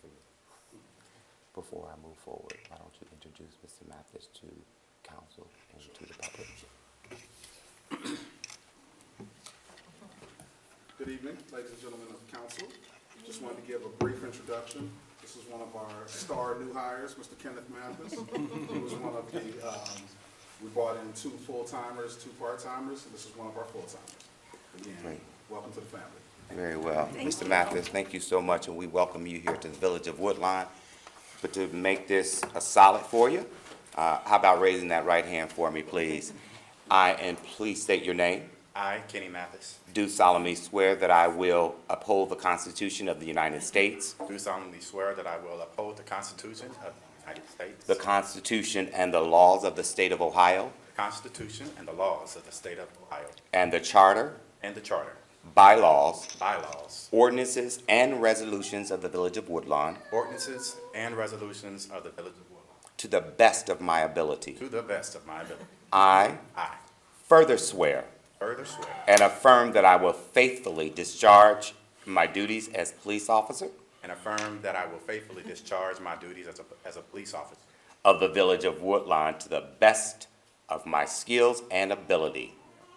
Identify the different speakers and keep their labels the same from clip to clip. Speaker 1: for you. Before I move forward, why don't you introduce Mr. Mathis to council and to the public?
Speaker 2: Good evening, ladies and gentlemen of council. Just wanted to give a brief introduction. This is one of our star new hires, Mr. Kenneth Mathis. He was one of the, um, we brought in two full-timers, two part-timers, and this is one of our full-timers. Again,
Speaker 1: Great.
Speaker 2: welcome to the family.
Speaker 1: Very well. Mr. Mathis, thank you so much, and we welcome you here to the Village of Woodlawn. But to make this a solid for you, uh, how about raising that right hand for me, please? I, and please state your name.
Speaker 3: I, Kenny Mathis,
Speaker 1: Do solemnly swear that I will uphold the Constitution of the United States,
Speaker 3: do solemnly swear that I will uphold the Constitution of the United States,
Speaker 1: the
Speaker 3: the
Speaker 1: Constitution and the laws of the State of Ohio,
Speaker 3: Constitution and the laws of the state of Ohio,
Speaker 1: and the Charter,
Speaker 3: and the charter,
Speaker 1: bylaws,
Speaker 3: bylaws,
Speaker 1: ordinances, and resolutions of the Village of Woodlawn
Speaker 3: ordinances, and resolutions of the Village of Woodlawn,
Speaker 1: to the best of my ability.
Speaker 3: to the best of my ability.
Speaker 1: I
Speaker 3: I
Speaker 1: further swear
Speaker 3: further swear
Speaker 1: and affirm that I will faithfully discharge my duties as police officer
Speaker 3: and affirm that I will faithfully discharge my duties as a, as a police officer
Speaker 1: of the Village of Woodlawn to the best of my skills and ability.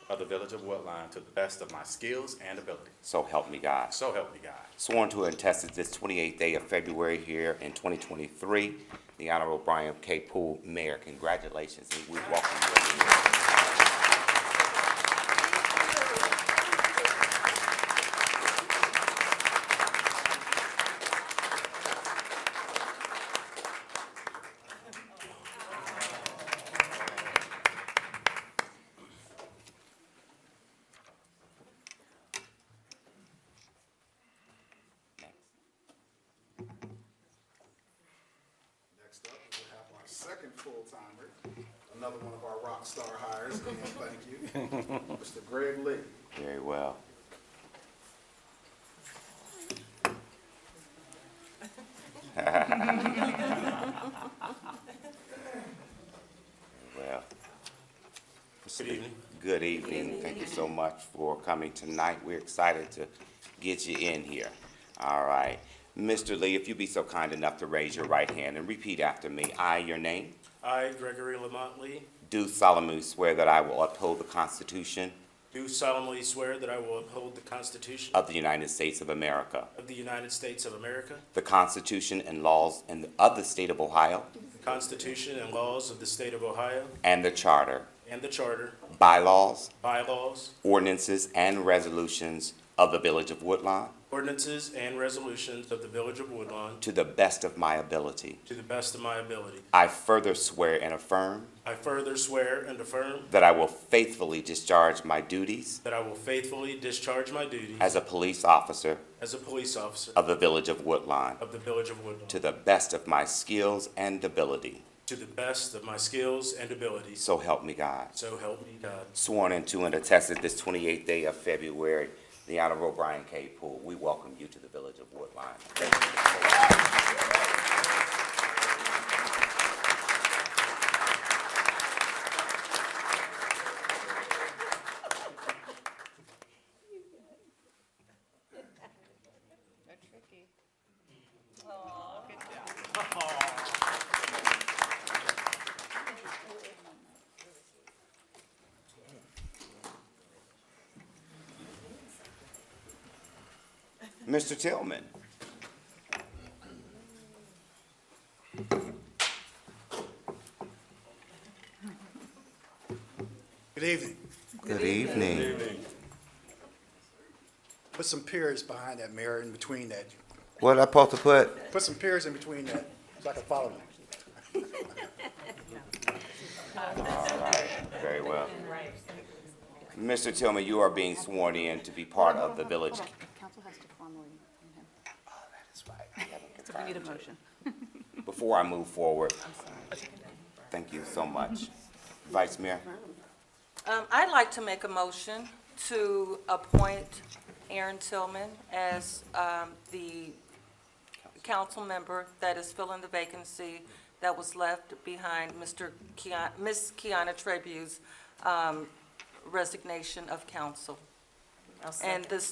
Speaker 3: of the Village of Woodline to the best of my skills and ability.
Speaker 1: So help me God.
Speaker 3: So help me God.
Speaker 1: sworn to and tested this 28th day of February here in 2023. The Honorable Brian K. Poole, Mayor, congratulations, and we welcome you.
Speaker 2: Next up, we have our second full-timer, another one of our rock star hires, again, thank you, Mr. Greg Lee.
Speaker 1: Very well. Very Well. Good evening. Good evening. Thank you so much for coming tonight. We're excited to get you in here. All right. Mr. Lee, if you'd be so kind enough to raise your right hand and repeat after me. I, your name,
Speaker 4: I, Gregory Lamont Lee,
Speaker 1: do solemnly swear that I will uphold the Constitution
Speaker 4: do solemnly swear that I will uphold the Constitution
Speaker 1: of the United States of America.
Speaker 4: of the United States of America,
Speaker 1: The Constitution and laws and of the State of Ohio
Speaker 4: the Constitution and laws of the State of Ohio,
Speaker 1: and the Charter,
Speaker 4: and the Charter,
Speaker 1: bylaws,
Speaker 4: bylaws,
Speaker 1: ordinances, and resolutions of the Village of Woodlawn
Speaker 4: ordinances, and resolutions of the Village of Woodlawn
Speaker 1: to the best of my ability.
Speaker 4: to the best of my ability.
Speaker 1: I further swear and affirm
Speaker 4: I further swear and affirm
Speaker 1: that I will faithfully discharge my duties
Speaker 4: that I will faithfully discharge my duties
Speaker 1: as a police officer
Speaker 4: as a police officer
Speaker 1: of the Village of Woodlawn
Speaker 4: of the Village of Woodlawn
Speaker 1: to the best of my skills and ability.
Speaker 4: to the best of my skills and abilities.
Speaker 1: So help me God.
Speaker 4: So help me God.
Speaker 1: Sworn into and attested this 28th day of February, the Honorable Brian K. Poole, we welcome you to the Village of Woodline. Thank you.
Speaker 5: They're tricky. Oh, good job.
Speaker 1: Mr. Tillman.
Speaker 6: Good evening.
Speaker 1: Good evening.
Speaker 6: Put some peers behind that mirror in between that.
Speaker 1: What I supposed to put?
Speaker 6: Put some peers in between that so I can follow them.
Speaker 1: Very well. Mr. Tillman, you are being sworn in to be part of the Village.
Speaker 5: Hold on. Council has to formally.
Speaker 1: So
Speaker 5: We need a motion.
Speaker 1: Before I move forward, thank you so much. Vice Mayor,
Speaker 7: Um, I'd like to make a motion to appoint Aaron Tillman as, um, the council member that is filling the vacancy that was left behind Mr. Keon, Ms. Kiana Trebu's, um, resignation of council. And this